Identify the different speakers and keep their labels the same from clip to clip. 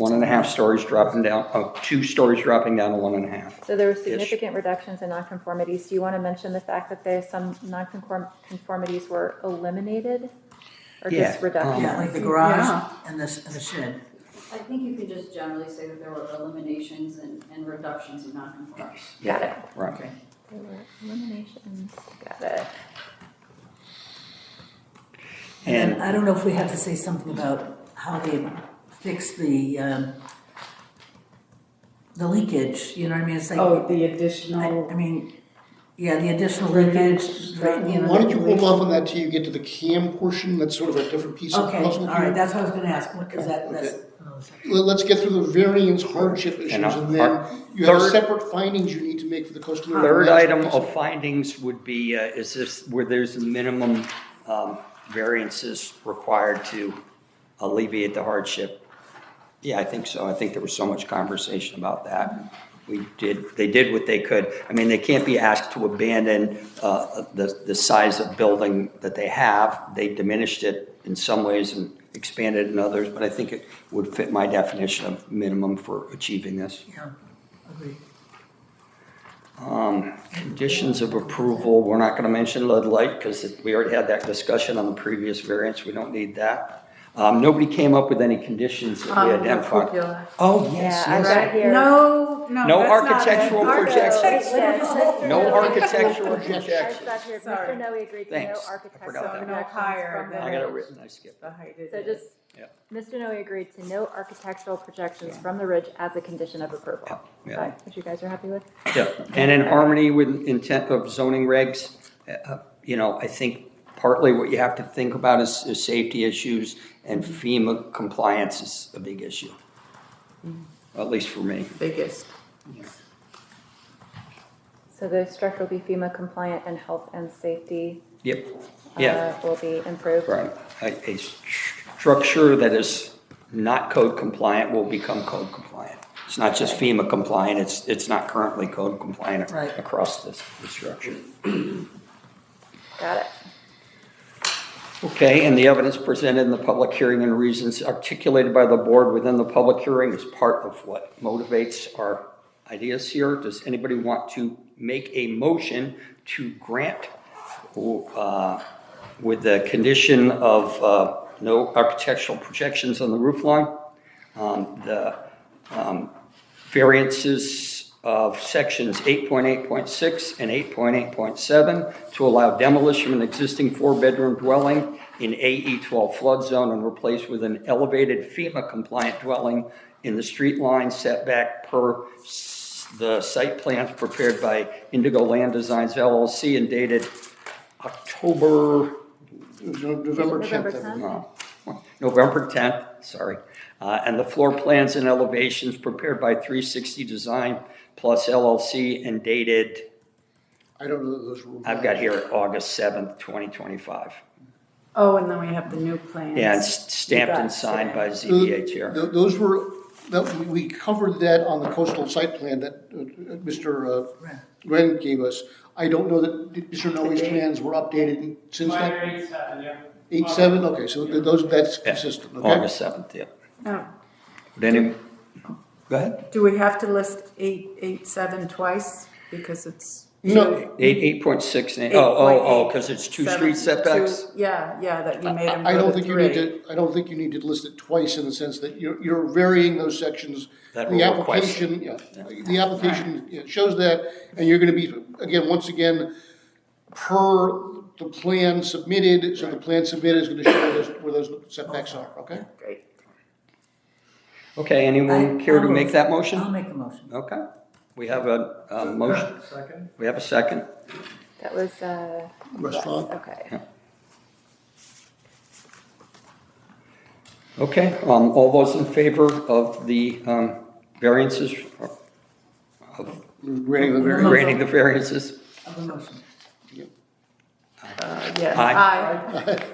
Speaker 1: one and a half stories dropping down, oh, two stories dropping down to one and a half.
Speaker 2: So there were significant reductions in nonconformities. Do you want to mention the fact that there's some nonconformities were eliminated? Or
Speaker 1: Yeah,
Speaker 2: just
Speaker 1: um,
Speaker 3: Yeah, like
Speaker 2: reductions?
Speaker 3: the garage
Speaker 4: Yeah.
Speaker 3: and the, s- and the shed.
Speaker 5: I think you could just generally say that there were eliminations and, and reductions in non-conformities.
Speaker 2: Got it.
Speaker 1: Right.
Speaker 3: Okay.
Speaker 2: There were eliminations, got it.
Speaker 3: And then
Speaker 1: And-
Speaker 3: I don't know if we have to say something about how they fix the, um, the leakage, you know what I mean? It's like,
Speaker 4: Oh, the
Speaker 3: I,
Speaker 4: additional,
Speaker 3: I mean, yeah, the additional leakage, right, you know.
Speaker 6: Why don't you hold off on that till you get to the CAM portion, that's sort of a different piece of
Speaker 3: Okay, all
Speaker 6: puzzle
Speaker 3: right,
Speaker 6: here.
Speaker 3: that's what I was gonna ask, what is that, that's. oh, sorry.
Speaker 6: Let- Let's get through the variance hardship issues,
Speaker 1: uh,
Speaker 6: and then you have
Speaker 1: third-
Speaker 6: separate findings you need to make for the customer.
Speaker 1: Third item of findings would be, uh, is this, where there's a minimum um, variances required to alleviate the hardship? Yeah, I think so. I think there was so much conversation about that. We did, they did what they could. I mean, they can't be asked to abandon uh, the, the size of building that they have. They diminished it in some ways and expanded in others, but I think it would fit my definition of minimum for achieving this.
Speaker 3: Yeah, agreed.
Speaker 1: Conditions of approval, we're not going to mention lead light because we already had that discussion on the previous variance. We don't need that. Um, Nobody came up with any conditions that we
Speaker 4: um, the
Speaker 1: identified.
Speaker 4: cupola.
Speaker 1: Oh,
Speaker 2: Yeah,
Speaker 1: yes,
Speaker 2: I
Speaker 1: yes.
Speaker 2: read here.
Speaker 4: No, no,
Speaker 1: No
Speaker 4: that's not it.
Speaker 1: architectural
Speaker 4: Margo,
Speaker 1: projections. No architectural
Speaker 2: I
Speaker 1: projections.
Speaker 2: got here, Mr.
Speaker 4: Sorry.
Speaker 2: Noe agreed to no
Speaker 1: Thanks. I
Speaker 2: architectural
Speaker 1: forgot that.
Speaker 2: projections
Speaker 4: So no higher
Speaker 2: from
Speaker 4: than-
Speaker 1: I got it written, I skipped.
Speaker 4: The height
Speaker 2: So
Speaker 4: it is.
Speaker 2: just,
Speaker 1: Yeah.
Speaker 2: Mr. Noe agreed to no architectural projections from the ridge as a condition of approval.
Speaker 1: Yeah.
Speaker 2: Right, Which you guys are happy with?
Speaker 1: Yeah, And in harmony with intent of zoning regs, uh, uh, you know, I think partly what you have to think about is, is safety issues and
Speaker 2: Mm-hmm.
Speaker 1: FEMA compliance is a big issue. At least for me.
Speaker 4: biggest.
Speaker 2: So the structure will be FEMA compliant and health and safety
Speaker 1: Yep,
Speaker 2: uh,
Speaker 1: yeah.
Speaker 2: will be improved.
Speaker 1: Right, a, a structure that is not code compliant will become code compliant. It's not just FEMA compliant, it's, it's not currently code compliant
Speaker 3: Right.
Speaker 1: across this, the structure.
Speaker 2: Got it.
Speaker 1: Okay, and the evidence presented in the public hearing and reasons articulated by the board within the public hearing is part of what motivates our ideas here. Does anybody want to make a motion to grant, uh, with the condition of, uh, no architectural projections on the roof line? Um, the, um, variances of sections 8.8.6 and 8.8.7 to allow demolition of an existing four-bedroom dwelling in AE12 flood zone and replace with an elevated FEMA-compliant dwelling in the street line setback per s- the site plans prepared by Indigo Land Designs LLC and dated October
Speaker 6: November
Speaker 2: November
Speaker 6: tenth, I
Speaker 2: 10th?
Speaker 6: believe.
Speaker 1: uh, November 10th, sorry. Uh, And the floor plans and elevations prepared by 360 Design Plus LLC and dated,
Speaker 6: I don't know that those rules.
Speaker 1: I've got here, August 7th, 2025.
Speaker 4: Oh, and then we have the new plans.
Speaker 1: Yeah, and s- stamped and signed by ZBA
Speaker 6: Th-
Speaker 1: Chair.
Speaker 6: Those were, that, we- we covered that on the coastal site plan that uh, uh, Mr. uh, Wren gave us. I don't know that Mr. Noe's plans were updated since
Speaker 7: Minor
Speaker 6: that,
Speaker 7: eight seven, yeah.
Speaker 6: eight, seven, okay, so th- those, that's
Speaker 1: Yeah,
Speaker 6: consistent, okay?
Speaker 1: August 7th, yeah.
Speaker 4: Now,
Speaker 1: Would any, go ahead.
Speaker 4: Do we have to list eight, eight, seven twice? Because it's.
Speaker 6: No.
Speaker 1: Eight 8.6, and eight- oh, oh, oh, because it's two
Speaker 4: 8.8,
Speaker 1: street
Speaker 4: seven,
Speaker 1: setbacks?
Speaker 4: two- Yeah, yeah, that you made them
Speaker 6: I I
Speaker 4: go
Speaker 6: don't
Speaker 4: to
Speaker 6: think you need
Speaker 4: three.
Speaker 6: to, I don't think you need to list it twice in the sense that you're, you're varying those sections.
Speaker 1: That
Speaker 6: The
Speaker 1: were requested.
Speaker 6: application, yeah, the application yeah, shows that, and you're gonna be, again, once again, per the plan submitted, so the plan submitted is gonna show where those, where those setbacks are, okay?
Speaker 4: Great.
Speaker 1: Okay, anyone
Speaker 3: I-
Speaker 1: care to
Speaker 3: I'll
Speaker 1: make
Speaker 3: move.
Speaker 1: that
Speaker 3: I'll
Speaker 1: motion?
Speaker 3: make a motion.
Speaker 1: Okay, we have a, a motion,
Speaker 7: Second.
Speaker 1: we have a second.
Speaker 2: That was, uh,
Speaker 6: Restaurant.
Speaker 2: okay.
Speaker 1: Okay, um, all those in favor of the, um, variances, or
Speaker 6: Granting the variance.
Speaker 1: granting the variances?
Speaker 3: Of the motion.
Speaker 4: Uh, Yeah.
Speaker 1: Aye.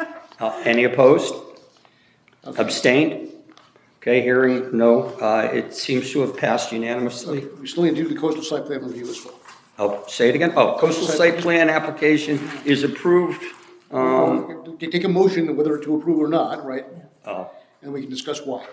Speaker 4: Aye.
Speaker 1: Uh, any opposed? Abstained? Okay, hearing no, uh, it seems to have passed unanimously.
Speaker 6: We still need to do the coastal site plan review as well.
Speaker 1: Oh, say it again. Oh, coastal site plan application is approved. Um,
Speaker 6: Take a motion whether to approve or not, right?
Speaker 1: oh,
Speaker 6: And we can discuss why.